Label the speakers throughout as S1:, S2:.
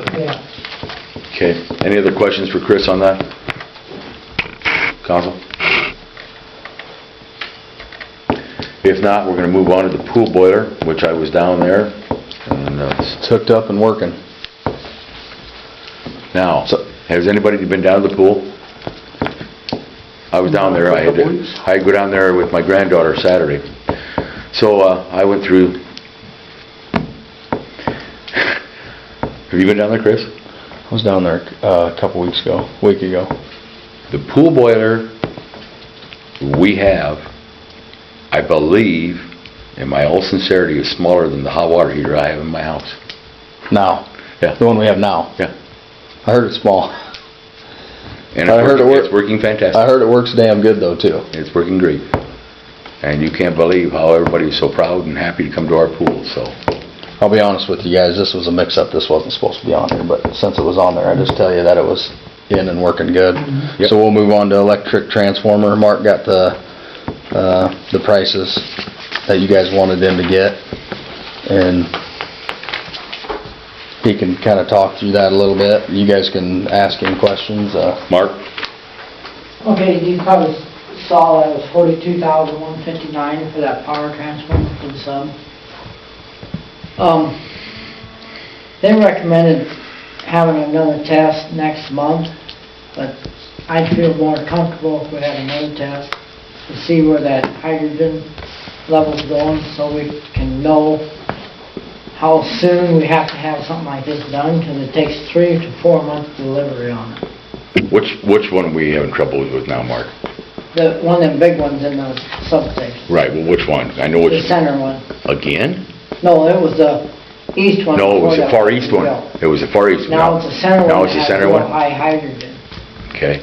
S1: Yeah.
S2: Okay, any other questions for Chris on that? Council? If not, we're gonna move on to the pool boiler, which I was down there, and uh, it's hooked up and working. Now, has anybody been down to the pool? I was down there, I had, to- I had to go down there with my granddaughter Saturday. So, uh, I went through... Have you been down there, Chris?
S3: I was down there uh, a couple weeks ago, week ago.
S2: The pool boiler we have, I believe, in my all sincerity, is smaller than the hot water heater I have in my house.
S3: Now,
S2: Yeah.
S3: the one we have now.
S2: Yeah.
S3: I heard it's small.
S2: And
S3: I heard it wor-
S2: it's working
S3: I
S2: fantastic.
S3: heard it works damn good though too.
S2: It's working great. And you can't believe how everybody's so proud and happy to come to our pool, so.
S3: I'll be honest with you guys, this was a mix-up. This wasn't supposed to be on here, but since it was on there, I just tell you that it was in and working good.
S2: Yep.
S3: So we'll move on to electric transformer. Mark got the, uh, the prices that you guys wanted him to get. And he can kinda talk through that a little bit. You guys can ask him questions, uh,
S2: Mark?
S1: Okay, you probably saw that it was forty-two thousand one fifty-nine for that power transformer for the sub. Um, they recommended having another test next month, but I'd feel more comfortable if we had another test to see where that hydrogen level's going, so we can know how soon we have to have something like this done, because it takes three to four months delivery on it.
S2: Which, which one are we having trouble with now, Mark?
S1: The, one of them big ones in the substation,
S2: Right, well, which one? I know
S1: the
S2: which,
S1: center one.
S2: again?
S1: No, it was the east one.
S2: No, it was
S1: before
S2: the
S1: that
S2: far east one.
S1: built.
S2: It was the far east one.
S1: Now it's the center one.
S2: Now it's
S1: that
S2: the
S1: has
S2: center
S1: real
S2: one?
S1: High hydrogen.
S2: Okay.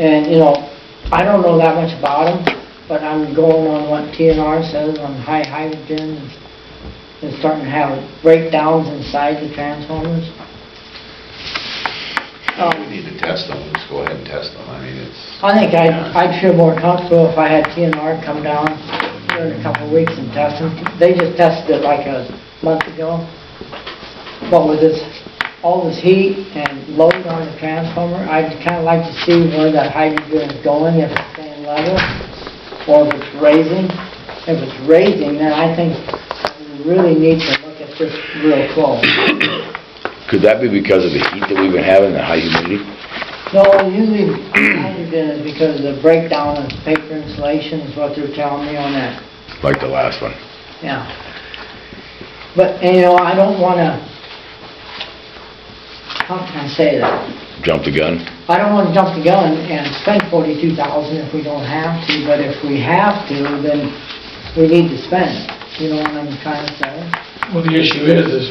S1: And, you know, I don't know that much about them, but I'm going on what TNR says on high hydrogen. and It's starting to have breakdowns inside the transformers.
S4: We
S1: Um,
S4: need to test them, just go ahead and test them, I mean, it's...
S1: I think I'd, I'd feel more comfortable if I had TNR come down during a couple of weeks and test them. They just tested it like a month ago. But with this, all this heat and load on the transformer, I'd kinda like to see where that hydrogen is going, if it's staying level, or if it's raising. If it's raising, then I think we really need to look at this real close.
S2: Could that be because of the heat that we've been having, the high humidity?
S1: No, usually hydrogen is because of the breakdown of paper insulation is what they're telling me on that
S2: Like the last one.
S1: Yeah. But, and, you know, I don't wanna, how can I say that?
S2: Jump the gun?
S1: I don't wanna jump the gun and spend forty-two thousand if we don't have to, but if we have to, then we need to spend it. You know what I'm trying to say?
S5: Well, the issue is, is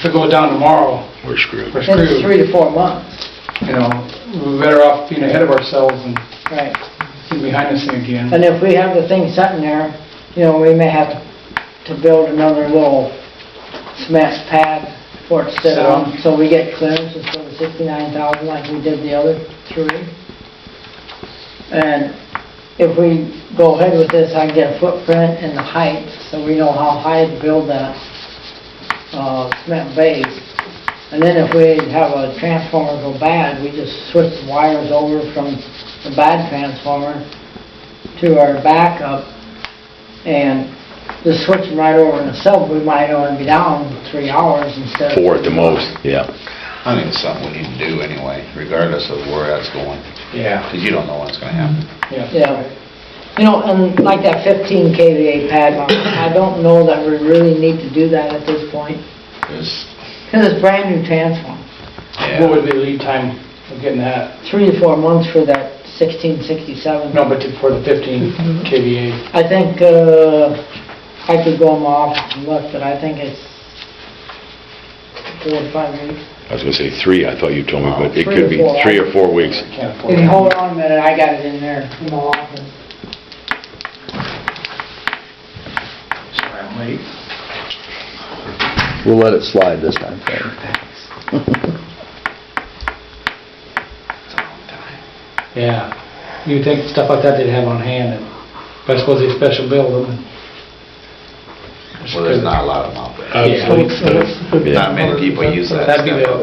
S5: if it goes down tomorrow,
S2: We're screwed.
S5: we're
S1: It's
S5: screwed.
S1: three to four months,
S5: You know, we're better off being ahead of ourselves and
S1: right?
S5: getting behind this thing again.
S1: And if we have the thing sitting there, you know, we may have to build another little cement pad for it to sit
S5: Sit
S1: on,
S5: on.
S1: so we get clearance instead of sixty-nine thousand like we did the other three. And if we go ahead with this, I can get a footprint and the height, so we know how high to build that, uh, cement base. And then if we have a transformer go bad, we just switch the wires over from the bad transformer to our backup and just switching right over in the sub, we might only be down three hours instead of...
S2: Four at the most, yeah.
S4: I think it's something we need to do anyway, regardless of where that's going,
S5: Yeah,
S4: because you don't know what's gonna happen.
S1: Yeah. You know, and like that 15 KVA pad, mount, I don't know that we really need to do that at this point,
S4: It's-
S1: because it's brand new transformer.
S4: yeah.
S5: What would be the lead time of getting that?
S1: Three to four months for that 1667.
S5: No, but for the 15 KVA,
S1: I think, uh, I could go in my office and look, but I think it's four or five weeks.
S2: I was gonna say three, I thought you told me, but it
S1: Three
S2: could
S1: or
S2: be
S1: four.
S2: three or four weeks.
S5: can't afford
S1: If you
S5: it.
S1: hold on a minute, I got it in there in my office.
S5: Sorry, I'm late.
S3: we'll let it slide this time. Fred.
S4: It's a long time.
S5: Yeah, you'd think stuff like that they'd have on hand, and- but I suppose they special build them. and-
S4: Well, there's not a lot of them out there.
S5: Yeah.
S6: Obsolete stuff.
S4: Not many people use that
S5: That'd be
S4: stuff.
S5: the